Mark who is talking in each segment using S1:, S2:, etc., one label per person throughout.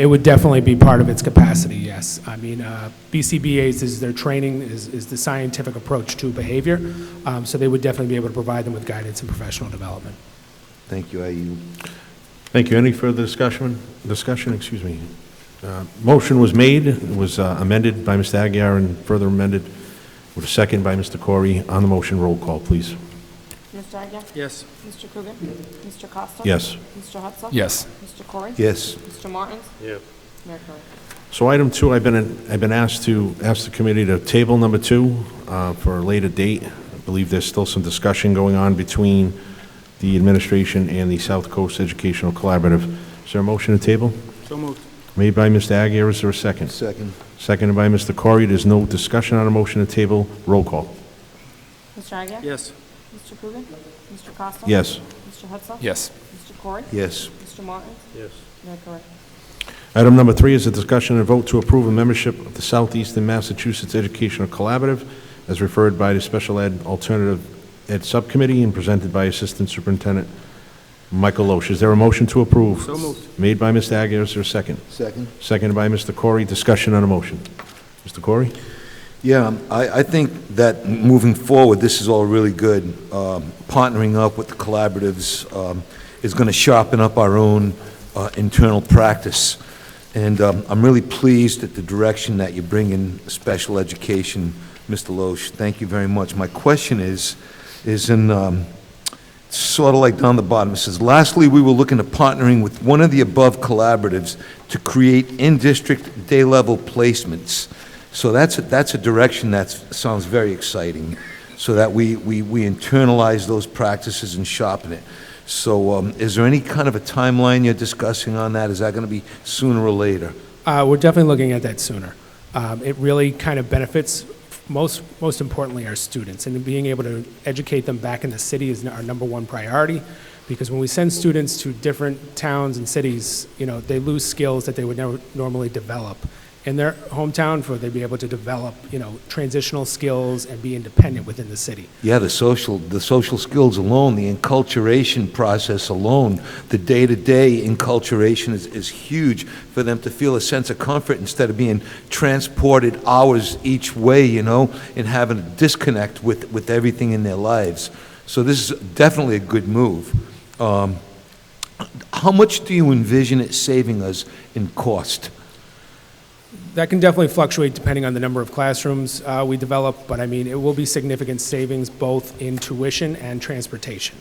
S1: It would definitely be part of its capacity, yes. I mean, uh, BCBA's is their training, is is the scientific approach to behavior, Um, so they would definitely be able to provide them with guidance and professional development.
S2: Thank you, IU.
S3: Thank you. Any further discussion? Discussion, excuse me. Uh, Motion was made, It was uh, amended by Mr. Aguirre and further amended with a second by Mr. Corey. On the motion, roll call, please.
S4: Mr. Agia?
S5: Yes.
S4: Mr. Coogan? Mr. Costa?
S3: Yes.
S4: Mr. Hudson?
S5: Yes.
S4: Mr. Corey?
S2: Yes,
S4: Mr. Martins?
S5: Yeah.
S4: Mayor Curran?
S3: So item two, I've been, I've been asked to, ask the committee to table number two uh, for a later date. I believe there's still some discussion going on between the administration and the South Coast Educational Collaborative. Is there a motion to table?
S5: So moved.
S3: Made by Mr. Aguirre, is there a second?
S2: second.
S3: Seconded by Mr. Corey. There's no discussion on a motion to table. Roll call.
S4: Mr. Agia?
S5: Yes.
S4: Mr. Coogan? Mr. Costa?
S3: Yes.
S4: Mr. Hudson?
S5: Yes.
S4: Mr. Corey?
S2: Yes,
S4: Mr. Martins?
S5: Yes.
S4: Mayor Curran?
S3: Item number three is a discussion and vote to approve a membership of the Southeastern Massachusetts Educational Collaborative as referred by the Special Ed Alternative Ed Subcommittee and presented by Assistant Superintendent Michael Loesch. Is there a motion to approve?
S5: So moved.
S3: Made by Mr. Aguirre, is there a second?
S2: second.
S3: Seconded by Mr. Corey. Discussion on a motion. Mr. Corey?
S2: Yeah, um, I, I think that moving forward, this is all really good. Um, Partnering up with the collaboratives um, is going to sharpen up our own uh, internal practice. And um, I'm really pleased at the direction that you bring in special education, Mr. Loesch. Thank you very much. My question is, is in, um, sort of like down the bottom, it says, lastly, we were looking at partnering with one of the above collaboratives to create in-district day-level placements. So that's, a- that's a direction that sounds very exciting, so that we, we, we internalize those practices and sharpen it. So um, is there any kind of a timeline you're discussing on that? Is that going to be sooner or later?
S1: Uh, We're definitely looking at that sooner. Um, It really kind of benefits, most, most importantly, our students, and being able to educate them back in the city is our number one priority, because when we send students to different towns and cities, you know, they lose skills that they would never normally develop in their hometown, for they be able to develop, you know, transitional skills and be independent within the city.
S2: Yeah, the social, the social skills alone, the enculturation process alone, the day-to-day enculturation is, is huge for them to feel a sense of comfort instead of being transported hours each way, you know, and having a disconnect with, with everything in their lives. So this is definitely a good move. Um, How much do you envision it saving us in cost?
S1: That can definitely fluctuate depending on the number of classrooms uh, we develop, but I mean, it will be significant savings both in tuition and transportation.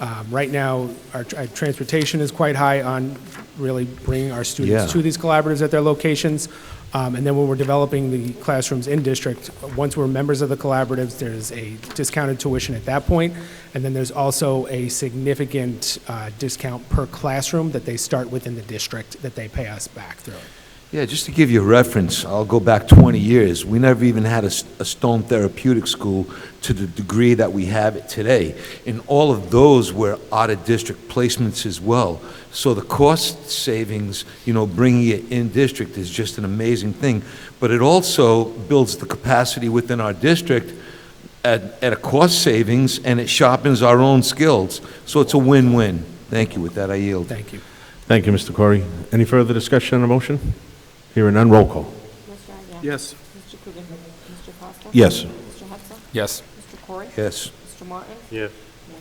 S1: Um, Right now, our tr- uh, transportation is quite high on really bringing our
S2: Yeah.
S1: students to these collaboratives at their locations. Um, And then when we're developing the classrooms in district, once we're members of the collaboratives, there's a discounted tuition at that point, and then there's also a significant uh, discount per classroom that they start within the district that they pay us back through.
S2: Yeah, just to give you a reference, I'll go back 20 years. We never even had a, s- a stone therapeutic school to the degree that we have it today. And all of those were out-of-district placements as well. So the cost savings, you know, bringing it in-district is just an amazing thing. But it also builds the capacity within our district at, at a cost savings, and it sharpens our own skills. So it's a win-win. Thank you. With that, I yield.
S1: Thank you.
S3: Thank you, Mr. Corey. Any further discussion on a motion? Hearing none, roll call.
S4: Mr. Agia?
S5: Yes.
S4: Mr. Coogan? Mr. Costa?
S3: Yes.
S4: Mr. Hudson?
S5: Yes.
S4: Mr. Corey?
S2: Yes.
S4: Mr. Martins?
S5: Yeah.
S4: Mayor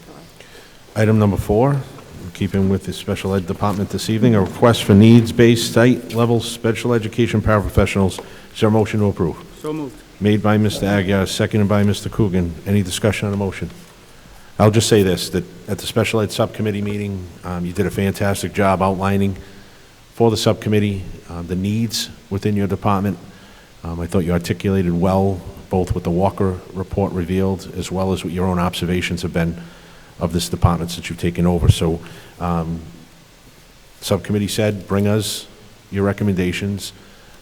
S4: Curran?
S3: Item number four, in keeping with the special ed department this evening, a request for needs-based site-level special education paraprofessionals. Is there a motion to approve?
S5: So moved.
S3: Made by Mr. Aguirre, seconded by Mr. Coogan. Any discussion on the motion? I'll just say this, that at the special ed subcommittee meeting, um, you did a fantastic job outlining for the subcommittee um, the needs within your department. Um, I thought you articulated well, both what the Walker report revealed, as well as what your own observations have been of this department since you've taken over. So um, subcommittee said, bring us your recommendations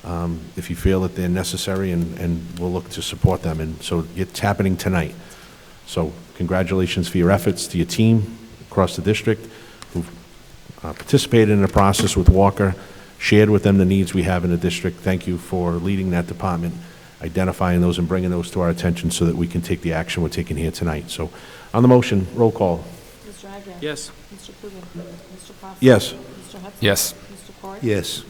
S3: um, if you feel that they're necessary, and, and we'll look to support them. And so it's happening tonight. So congratulations for your efforts to your team across the district who've uh, participated in the process with Walker, shared with them the needs we have in the district. Thank you for leading that department, identifying those and bringing those to our attention so that we can take the action we're taking here tonight. So on the motion, roll call.
S4: Mr. Agia?
S5: Yes.
S4: Mr. Coogan? Mr. Costa?
S3: Yes.
S4: Mr. Hudson?
S5: Yes.
S4: Mr. Corey?
S2: Yes.